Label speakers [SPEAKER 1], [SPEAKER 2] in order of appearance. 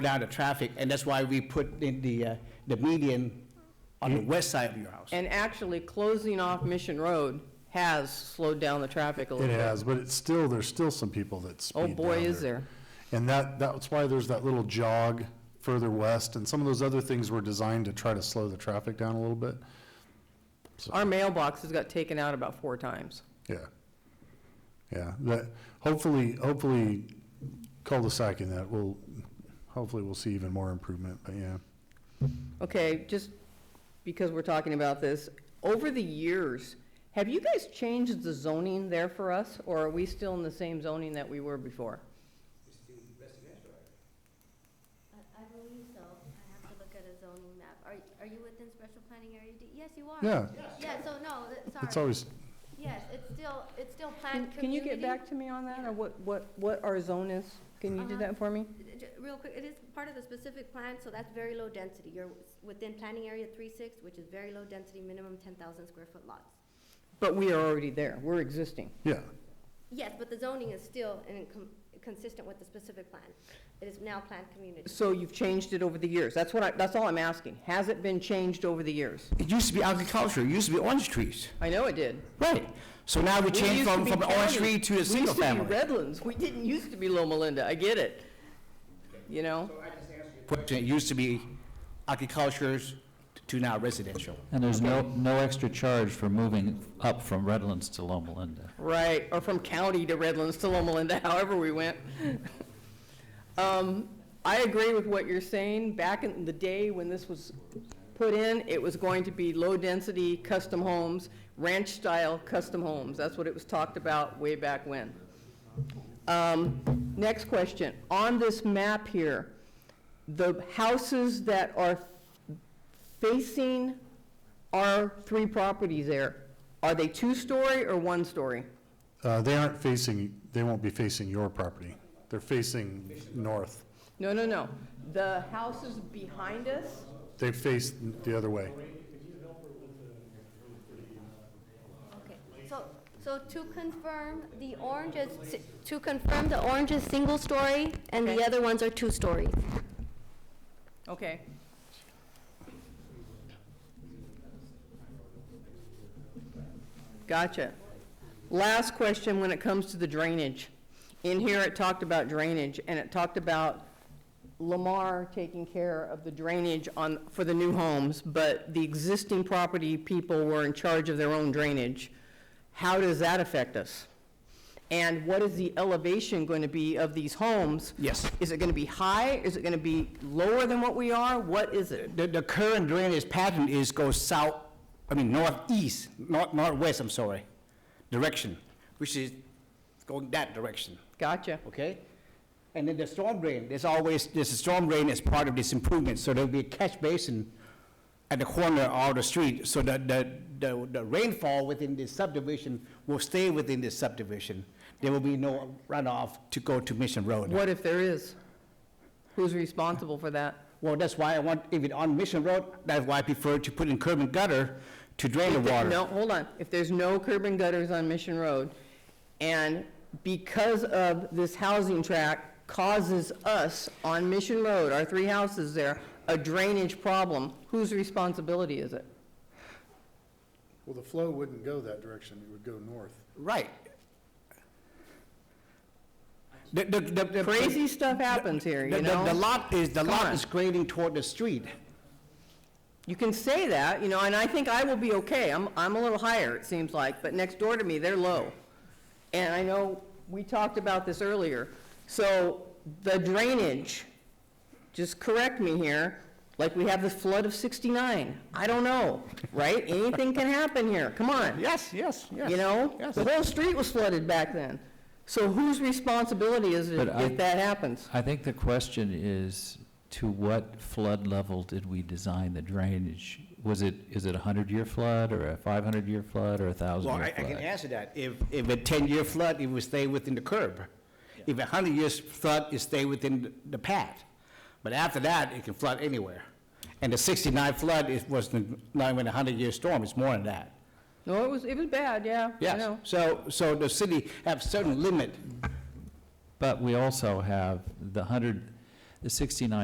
[SPEAKER 1] down the traffic, and that's why we put in the, uh, the median on the west side of your house.
[SPEAKER 2] And actually, closing off Mission Road has slowed down the traffic a little
[SPEAKER 3] It
[SPEAKER 2] bit.
[SPEAKER 3] has, but it's still, there's still some people that
[SPEAKER 2] Oh,
[SPEAKER 3] speed down
[SPEAKER 2] boy, is there.
[SPEAKER 3] And that, that's why there's that little jog further west, and some of those other things were designed to try to slow the traffic down a little bit.
[SPEAKER 2] Our mailbox has got taken out about four times.
[SPEAKER 3] Yeah. Yeah, that, hopefully, hopefully cul-de-sac in that will, hopefully we'll see even more improvement, but yeah.
[SPEAKER 2] Okay, just because we're talking about this, over the years, have you guys changed the zoning there for us, or are we still in the same zoning that we were before?
[SPEAKER 4] I I believe so. I have to look at a zoning map. Are, are you within special planning area D? Yes, you are.
[SPEAKER 3] Yeah,
[SPEAKER 4] Yeah, so no, th-
[SPEAKER 3] it's
[SPEAKER 4] sorry.
[SPEAKER 3] always,
[SPEAKER 4] Yes, it's still, it's still
[SPEAKER 2] Can
[SPEAKER 4] planned community.
[SPEAKER 2] can you get back to me on that, or what, what, what our zone is? Can you do
[SPEAKER 4] Uh-huh.
[SPEAKER 2] that for me?
[SPEAKER 4] Uh, j- Real quick, it is part of the specific plan, so that's very low density. You're s- within planning area three-six, which is very low density, minimum ten thousand square foot lots.
[SPEAKER 2] But we are already there, we're existing.
[SPEAKER 3] yeah,
[SPEAKER 4] Yes, but the zoning is still in com- consistent with the specific plan. It is now planned community.
[SPEAKER 2] So you've changed it over the years, that's what I, that's all I'm asking. Has it been changed over the years?
[SPEAKER 1] It used to be agriculture, it used to be orange trees.
[SPEAKER 2] I know it did.
[SPEAKER 1] Right. So now we
[SPEAKER 2] We
[SPEAKER 1] change
[SPEAKER 2] used to
[SPEAKER 1] from,
[SPEAKER 2] be
[SPEAKER 1] from an orange
[SPEAKER 2] county.
[SPEAKER 1] tree to a single
[SPEAKER 2] We
[SPEAKER 1] family.
[SPEAKER 2] used to be Redlands, we didn't used to be Loma Linda, I get it, you know?
[SPEAKER 1] Question, it used to be agriculture to now residential.
[SPEAKER 5] And there's no, no extra charge for moving up from Redlands to Loma Linda.
[SPEAKER 2] Right, or from county to Redlands to Loma Linda, however we went. Um, I agree with what you're saying. Back in the day when this was put in, it was going to be low-density custom homes, ranch-style custom homes. That's what it was talked about way back when. Um, Next question. On this map here, the houses that are facing our three properties there, are they two-story or one-story?
[SPEAKER 3] uh, they aren't facing, they won't be facing your property, they're facing north.
[SPEAKER 2] No, no, no. The houses behind us,
[SPEAKER 3] They face the other way.
[SPEAKER 4] Okay, so, so to confirm, the orange is, si- to confirm, the orange is single story, and the
[SPEAKER 2] Okay.
[SPEAKER 4] other ones are two stories.
[SPEAKER 2] okay. Gotcha. Last question when it comes to the drainage. In here, it talked about drainage, and it talked about Lamar taking care of the drainage on, for the new homes, but the existing property people were in charge of their own drainage. How does that affect us? And what is the elevation going to be of these homes?
[SPEAKER 1] Yes.
[SPEAKER 2] Is it going to be high? Is it going to be lower than what we are? What is it?
[SPEAKER 1] The, the current drainage pattern is go south, I mean northeast, north, northwest, I'm sorry, direction, which is going that direction,
[SPEAKER 2] Gotcha.
[SPEAKER 1] okay? And then the storm drain, there's always, there's a storm drain as part of this improvement, so there'll be a catch basin at the corner of the street, so that the, the, the rainfall within this subdivision will stay within this subdivision. There will be no runoff to go to Mission Road.
[SPEAKER 2] What if there is? Who's responsible for that?
[SPEAKER 1] Well, that's why I want, if it on Mission Road, that's why I prefer to put in curb and gutter to drain the
[SPEAKER 2] If there-
[SPEAKER 1] water.
[SPEAKER 2] No, hold on. If there's no curb and gutters on Mission Road, and because of this housing tract causes us on Mission Road, our three houses there, a drainage problem, whose responsibility is it?
[SPEAKER 3] Well, the flow wouldn't go that direction, it would go north.
[SPEAKER 1] Right. The- the- the- the-
[SPEAKER 2] Crazy stuff happens here,
[SPEAKER 1] the-
[SPEAKER 2] you
[SPEAKER 1] the- The
[SPEAKER 2] know?
[SPEAKER 1] lot is, the
[SPEAKER 2] Come
[SPEAKER 1] lot
[SPEAKER 2] on.
[SPEAKER 1] is grading toward the street.
[SPEAKER 2] You can say that, you know, and I think I will be okay. I'm, I'm a little higher, it seems like, but next door to me, they're low. And I know, we talked about this earlier. So the drainage, just correct me here, like we have the flood of 69. I don't know, right? Anything can happen here, come on.
[SPEAKER 1] Yes, yes, yes.
[SPEAKER 2] You know?
[SPEAKER 1] Yes.
[SPEAKER 2] The whole street was flooded back then. So whose responsibility is it
[SPEAKER 5] But I-
[SPEAKER 2] if that happens?
[SPEAKER 5] I think the question is, to what flood level did we design the drainage? Was it, is it a hundred-year flood, or a five-hundred-year flood, or a
[SPEAKER 1] Well, I, I
[SPEAKER 5] thousand-year
[SPEAKER 1] can
[SPEAKER 5] flood?
[SPEAKER 1] answer that. If, if a ten-year flood, it would stay within the curb. If a hundred-year flood, it stay within the- the path. But after that, it can flood anywhere. And the sixty-nine flood, it was the- not even a hundred-year storm, it's more than that.
[SPEAKER 2] No, it was, it was bad, yeah. I
[SPEAKER 1] Yes,
[SPEAKER 2] know.
[SPEAKER 1] so, so the city have certain limit
[SPEAKER 5] But we also have the hundred, the sixty-nine